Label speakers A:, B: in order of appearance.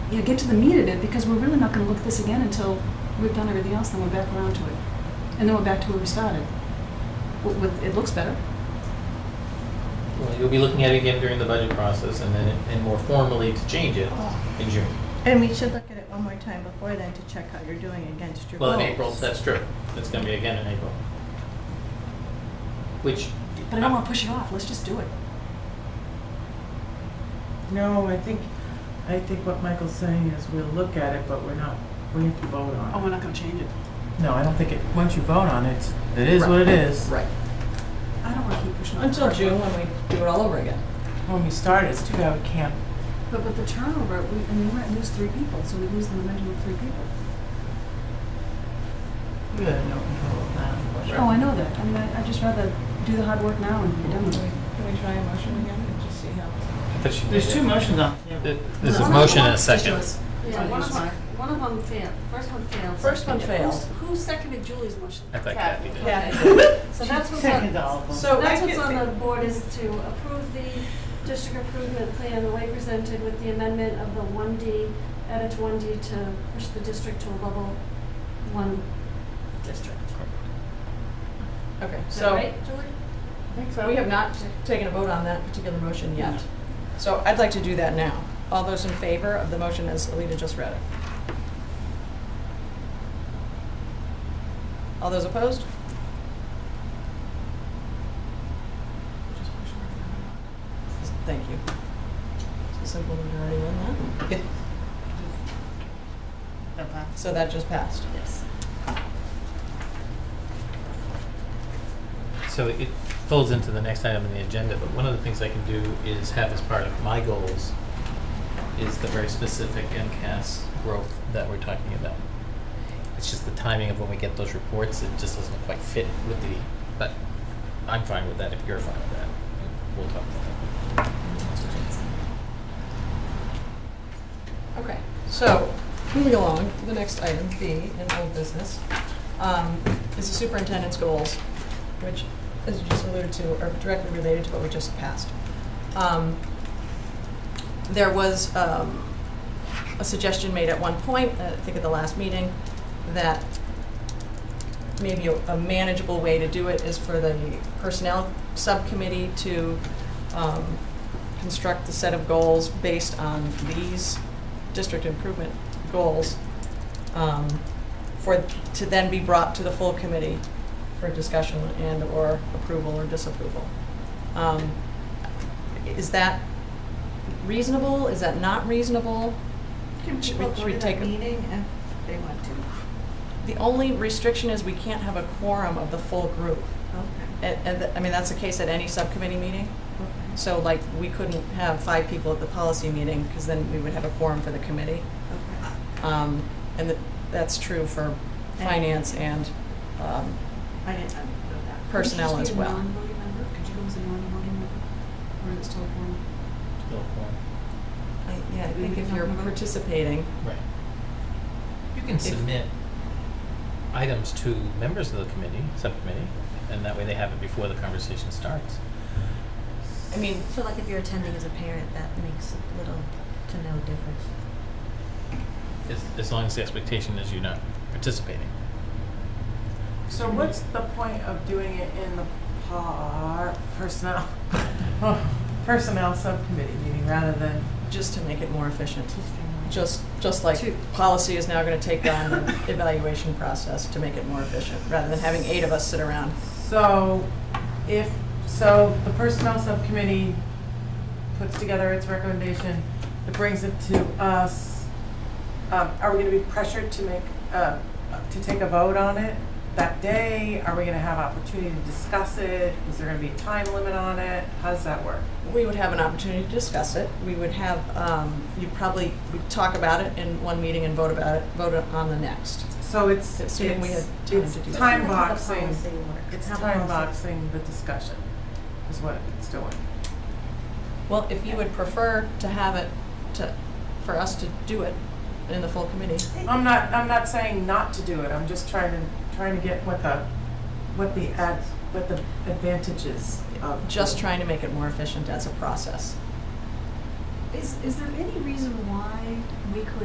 A: yeah, get to the meat of it because we're really not going to look at this again until we've done everything else. Then we're back around to it, and then we're back to where we started. With, with it looks better.
B: Well, you'll be looking at it again during the budget process and then, and more formally to change it in June.
C: And we should look at it one more time before then to check how you're doing against your
B: Well,
C: goals.
B: in April, that's true. It's gonna be again in April. Which.
A: But I don't want to push it off. Let's just do it.
D: No, I think, I think what Michael's saying is we'll look at it, but we're not, we have to vote
A: Oh,
D: on
A: we're not going to change it.
D: it. No, I don't think it, once you vote on it, it is what it is.
E: Right.
A: I don't want to keep pushing it.
E: Until June, when we do it all over again.
D: When we start, it's too bad we can't,
A: But with the turnover, we, I mean, we might lose three people, so we lose the momentum of three people.
D: we have no control of that.
A: Oh, I know that. I mean, I- I'd just rather do the hard work now and be done with it.
E: Can we try a motion again and just see how?
D: There's two motions on the table.
B: There's a motion and a second.
F: Yeah, one of them, one of them failed, first one failed.
E: First one failed.
F: Who's- Who seconded Julie's motion?
B: I think Kathy did.
F: Okay. So that's what's
D: Second to
F: on,
D: all of them.
E: So I
F: that's what's on the
E: can,
F: board is to approve the district improvement plan the way presented with the amendment of the one D, edit one D to push the district to a level one district.
E: okay,
F: Is that
E: so
F: right, Julie?
E: we have not t- taken a vote on that particular motion yet. So I'd like to do that now. All those in favor of the motion as Alita just read it? All those opposed? Thank you. It's a simple majority on that. So that just passed.
F: Yes.
B: So it folds into the next item on the agenda, but one of the things I can do is have as part of my goals is the very specific MCAS growth that we're talking about. It's just the timing of when we get those reports, it just doesn't quite fit with the, but I'm fine with that if you're fine with that. We'll talk about that.
E: Okay, so moving along, the next item, B, in old business, um, is the superintendent's goals, which, as you just alluded to, are directly related to what we just passed. Um, There was um, a suggestion made at one point, uh, I think at the last meeting, that maybe a a manageable way to do it is for the personnel subcommittee to um, construct a set of goals based on um, these district improvement goals um, for, to then be brought to the full committee for discussion and/or approval or disapproval. Um, Is that reasonable? Is that not reasonable?
C: Can
E: Should
C: people
E: we- should
C: go
E: we
C: to
E: take
C: that
E: a-
C: meeting if they want to?
E: The only restriction is we can't have a quorum of the full group.
C: Okay,
E: And, and th- I mean, that's the case at any subcommittee meeting.
C: okay,
E: So like, we couldn't have five people at the policy meeting because then we would have a quorum for the committee.
C: okay.
E: Um, And that- that's true for finance and um,
C: I didn't know that.
E: personnel as well.
A: Could you just be a non-voting member? Could you go as a non-voting member? Or is it still a quorum?
B: Still quorum.
E: I- Yeah, I
A: We
E: think
A: can
E: if
A: talk
E: you're
A: about it.
E: participating,
B: Right. You can submit items to members of the committee, subcommittee, and that way they have it before the conversation starts.
E: I mean,
G: So like if you're attending as a parent, that makes little to no difference.
B: As, as long as the expectation is you're not participating.
D: So what's the point of doing it in the par, personnel, personnel subcommittee meeting rather than
E: just to make it more efficient.
D: just
E: Just, just like
A: Two.
E: policy is now going to take on the evaluation process to make it more efficient, rather than having eight of us sit around.
D: So if, so the personnel subcommittee puts together its recommendation, it brings it to us. Um, Are we gonna be pressured to make, uh, to take a vote on it that day? Are we gonna have opportunity to discuss it? Is there gonna be a time limit on it? How does that work?
E: We would have an opportunity to discuss it. We would have, um, you probably would talk about it in one meeting and vote about it, vote on the next.
D: So it's, it's,
E: Assuming we had time to do
D: it's
E: that.
D: time
G: How the
D: boxing,
G: policy works,
D: it's
G: how the
D: time
G: policy-
D: boxing the discussion is what it's doing.
E: Well, if you would prefer to have it, to, for us to do it in the full committee,
D: I'm not, I'm not saying not to do it, I'm just trying to, trying to get what the, what the ad, what the advantages of.
E: just trying to make it more efficient as a process.
A: Is, is there any reason why we could